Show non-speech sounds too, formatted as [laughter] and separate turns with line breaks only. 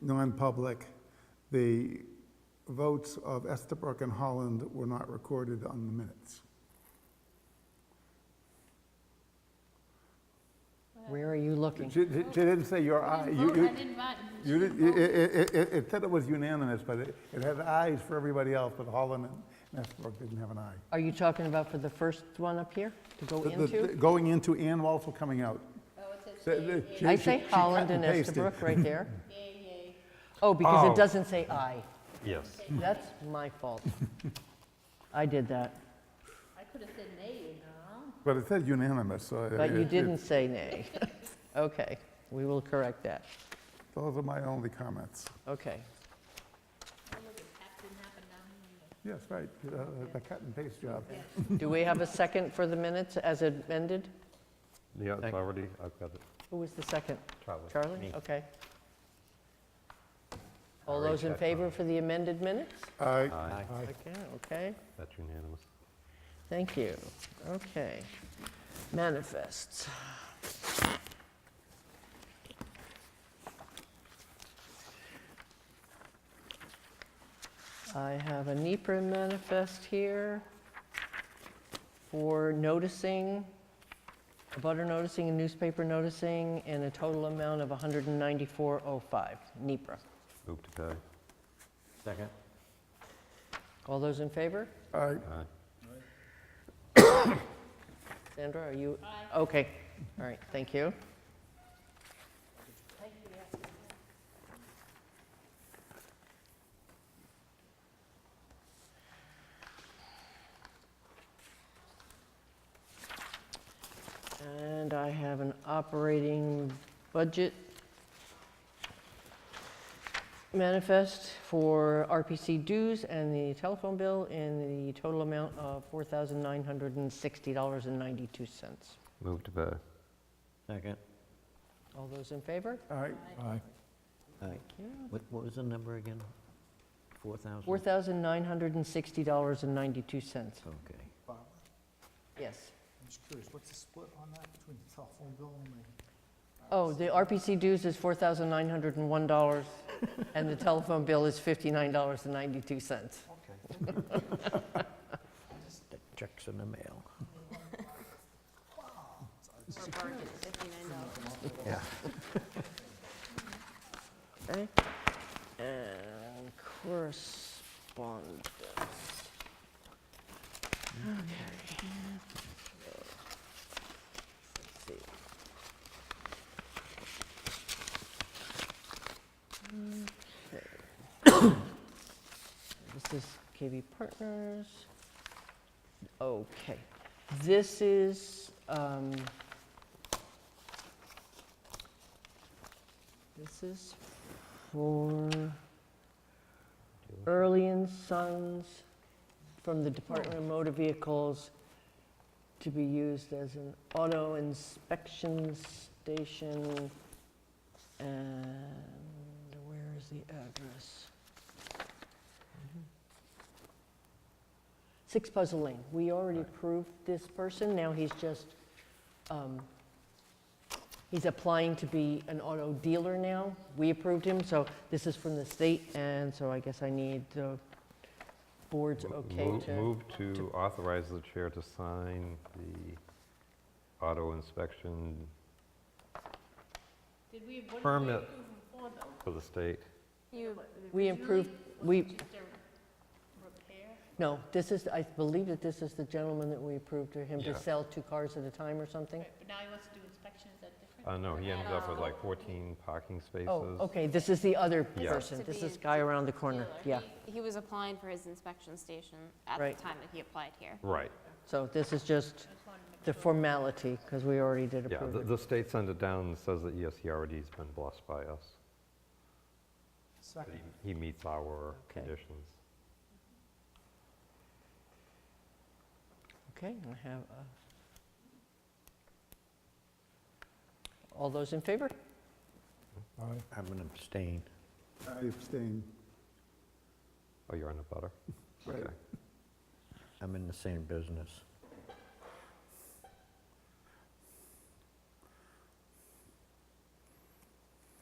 non-public, the votes of Estabrook and Holland were not recorded on the minutes.
Where are you looking?
She, she- she didn't say your
I
eye.
didn't
You-
vote,
you-
I didn't vote.
You did, it, it, it- it said it was unanimous, but it, it had ayes for everybody else, but Holland and Estabrook didn't have an aye.
Are you talking about for the first one up here to go
The- the-
into?
Going into and also coming out.
Oh, it
So,
says
the-
yay,
she-
I
she-
say
she cut
Holland and
pasted. [laughs]
Estabrook right there.
yay, yay.
Oh, because
Oh.
it doesn't say I.
Yes.
That's my fault. I did that,
I could have said nay, you know.
But it said unanimous, so.
but
it-
you
it-
didn't say nay. [laughs] Okay, we will correct that.
Those are my only comments.
Okay.
Oh, look, it happened, happened down here.
Yes, right, uh, the cut and paste job.
Do we have a second for the minutes as amended?
Yeah, it's already, I've got it.
Who was the second?
Charlie.
Charlie?
Me.
Okay. All
Already
those in
checked
favor
on
for the amended minutes?
Aye.
Aye.
Aye.
Okay, okay.
That's unanimous.
Thank you. Okay. Manifests. I have a NEPR manifest here for noticing, a butter noticing, and newspaper noticing, and a total amount of 194.05 NEPR.
Move to pay.
Second.
All those in favor?
Aye.
Aye.
Sandra, are you? Okay, all right, thank you. And I have an operating budget manifest for RPC dues and the telephone bill in the total amount of $4,960.92.
Move to pay.
Second.
All those in favor?
Aye. Aye.
All right. What, what was the number again? Four thousand?
$4,960.92.
Okay.
Barbara,
Yes.
I'm just curious, what's the split on that between the telephone bill and the?
Oh, the RPC dues is $4,901, and the telephone bill is $59.92.
Okay.
The Checks in the mail. Yeah.
Okay. And correspondence. Okay. Let's see. [coughs] Okay. This is KB Partners. Okay. This is, um, this is for Early and Sons from the Department of Motor Vehicles to be used as an auto inspection station. And where is the address? Six Puzzle Lane. We already approved this person. Now he's just, um, He's applying to be an auto dealer now. We approved him, so this is from the state, and so I guess I need the board's
Mo-
okay
move-
to.
Move to authorize the chair to sign the auto inspection
Did we, what did we
Permit.
approve them for though?
for the state.
We improved, we,
Just a repair?
no, this is, I believe that this is the gentleman that we approved to him
Yeah.
to sell two cars at a time or something.
Right, But now he wants to do inspections, is that different?
I know, Uh, he ended up with like 14 parking spaces.
Oh, okay, this is the other
Yeah.
person.
To
This
be
is guy around the corner, yeah.
Dealer.
He was applying for his inspection station at
Right.
the time that he applied here.
Right,
So this is just the formality, because we already did
yeah,
approve
the-
it.
the state sent it down and says that, yes, he already's been blessed by us. that
Second.
he- He meets our
Okay.
conditions.
Okay, I have uh, a... All those in favor?
I'm gonna abstain.
I abstain.
Oh, you're on a butter?
Right.
Okay.
I'm in the same business.